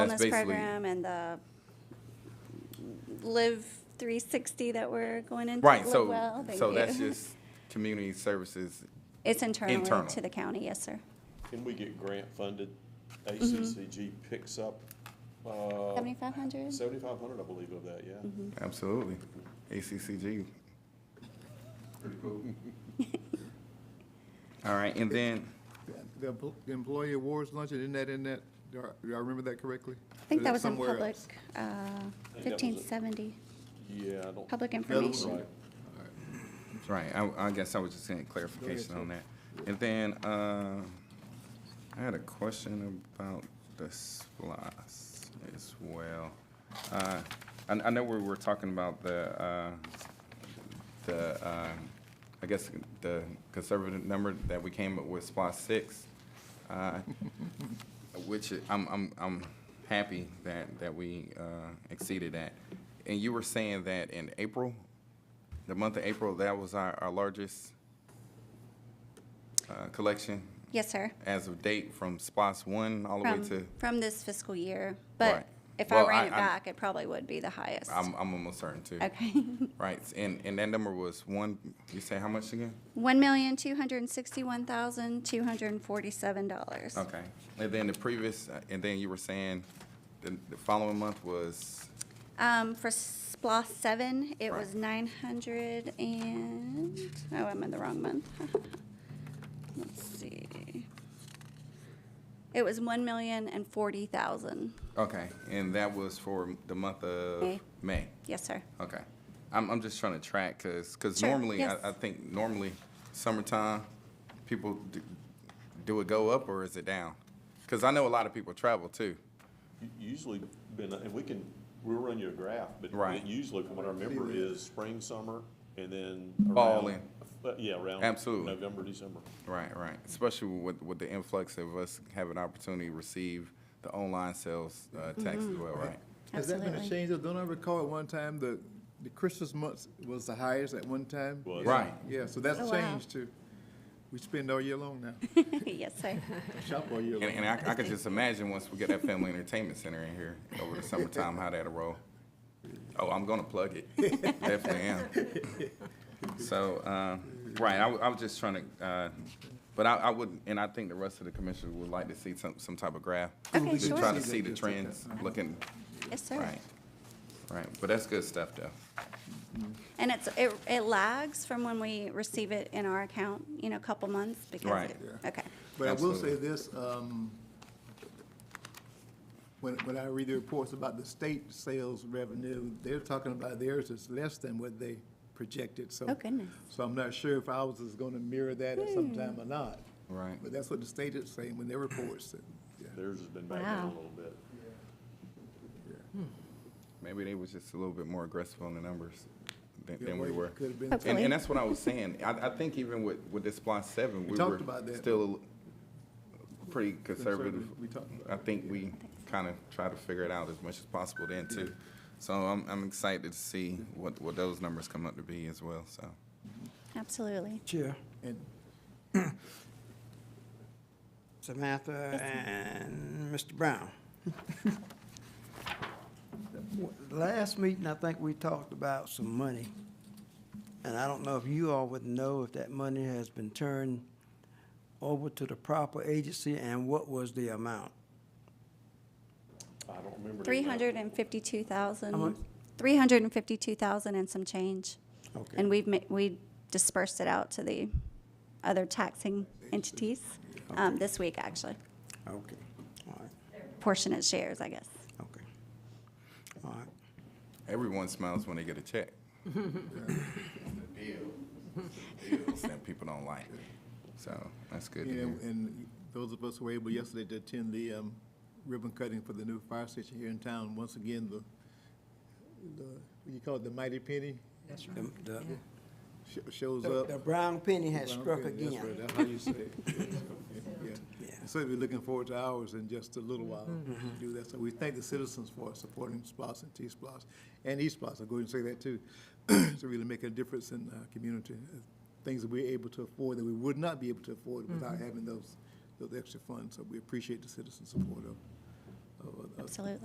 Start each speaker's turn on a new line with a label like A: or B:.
A: wellness
B: basically-
A: program and the Live 360 that we're going into.
B: Right,
A: Live
B: so,
A: Oh, Well, thank
B: so
A: you.
B: that's just community services.
A: It's internal
B: internal.
A: to the county, yes, sir.
C: Can we get grant funded?
A: Mm-hmm.
C: ACCG picks up, uh,
A: 7,500?
C: seventy-five hundred, I believe, of that, yeah.
A: Mm-hmm.
B: Absolutely. ACCG. All right, and then,
D: The empl- the employee awards luncheon, isn't that in that, do I- do I remember that correctly?
A: I think that was in
D: Somewhere
A: public,
D: else.
A: uh,
C: was it.
A: 1570,
C: Yeah, I don't.
A: public
D: one.
A: information.
C: Right.
B: that's right, I, I guess I was just saying clarification on that. And then, uh, I had a question about the SPOS as well. Uh, I, I know we were talking about the, uh, the, um, I guess, the conservative number that we came up with, SPOS six. uh, Which I'm, I'm, I'm happy that, that we uh, exceeded that. And you were saying that in April, the month of April, that was our, our largest uh, collection
A: Yes, sir.
B: as of date from SPOS one all the way
A: From,
B: to,
A: from this fiscal year, but
B: Right.
A: if I
B: Well,
A: ran
B: I-
A: it
B: I'm-
A: back, it probably would be the highest.
B: I'm, I'm almost certain too.
A: Okay.
B: Right, and, and that number was one, you say how much again?
A: $1,261,247.
B: Okay, and then the previous, uh, and then you were saying the, the following month was,
A: Um, for SPOS seven, it
B: Right.
A: was nine hundred and, oh, I'm in the wrong month. Let's see. It was one million and forty thousand.
B: okay, and that was for the month of
A: May.
B: May,
A: Yes, sir.
B: okay. I'm, I'm just trying to track, cause, 'cause
A: Sure,
B: normally,
A: yes.
B: I, I think normally summertime, people, do, do it go up or is it down? Cause I know a lot of people travel too.
C: U- Usually been, and we can, we'll run you a graph, but
B: Right.
C: it usually, from what I remember, is spring, summer, and then around.
B: Fall in.
C: uh, Yeah, around.
B: Absolutely.
C: November, December.
B: Right, right. Especially with, with the influx of us having opportunity to receive the online sales uh, tax
A: Mm-hmm.
B: as well, right?
D: Has that been a
A: Absolutely.
D: change? though? Don't I recall at one time the, the Christmas month was the highest at one time?
C: Was.
B: Right.
D: Yeah, so that's
A: Oh, wow.
D: changed too. We spend all year long now,
A: Yes, sir.
D: shop all year
B: And,
D: long.
B: and I, I could just imagine once we get that family entertainment center in here over the summertime, how that'll roll. Oh, I'm gonna plug it. Definitely am. So, um, right, I, wa- I was just trying to, uh, but I, I would, and I think the rest of the commissioners would like to see some, some type of graph.
A: Okay,
B: To try
A: sure.
B: to see the trends looking,
A: Yes, sir.
B: right, right. But that's good stuff though.
A: And it's, it, it lags from when we receive it in our account, you know, a couple months because.
B: Right.
A: it-
D: Yeah.
A: Okay.
D: But I will say
B: Absolutely.
D: this, um, when, when I read the reports about the state sales revenue, they're talking about theirs is less than what they projected, so.
A: Oh, goodness.
D: So I'm not sure if ours is gonna mirror that at some time or not.
B: Right.
D: But that's what the state is saying when they report it. Yeah.
C: Theirs has been back down a
A: Wow.
C: little bit.
B: Maybe they was just a little bit more aggressive on the numbers than,
D: Yeah,
B: than
D: well,
B: we
D: it
B: were.
D: could've
B: And,
D: been-
A: Hopefully.
B: and that's what I was saying. I, I think even with, with this Splot seven, we
D: talked
B: were
D: about that.
B: still a- pretty conservative.
D: we talked about
B: I think we kind of try to figure it out as much as possible then too. So I'm, I'm excited to see what, what those numbers come up to be as well, so.
A: Absolutely.
E: Chair,
D: And
E: Samantha and Mr. Brown. Last meeting, I think we talked about some money. And I don't know if you all would know if that money has been turned over to the proper agency and what was the amount?
C: I don't remember. the
A: Three
C: amount.
A: hundred and fifty-two thousand,
E: much?
A: three hundred and fifty-two thousand and some change.
E: Okay.
A: And we've, ma- we dispersed it out to the other taxing entities, um, this week, actually.
E: Okay, all right,
A: Portionate shares, I guess.
E: okay. All right.
B: Everyone smiles when they get a check. Bills That people don't like, so that's good to
D: Yeah,
B: hear.
D: and those of us who were able yesterday to attend the um, ribbon cutting for the new fire station here in town, once again, the, the, what you call it, the mighty penny
E: The- the-
D: sh- shows
E: The
D: up.
E: the brown penny has
D: Brown
E: struck
D: penny, that's right,
E: again.
D: That's how you say it. Yeah.
E: Yeah. Mm-hmm.
D: So we're looking forward to ours in just a little while to do that. So we thank the citizens for supporting SPOS and T-SPOS and E-SPOS. I'll go ahead and say that too. To really make a difference in our community, uh, things that we're able to afford that we would not
E: Mm-hmm.
D: be able to afford without having those, those extra funds. So we appreciate the citizen support of, of- of-
A: Absolutely.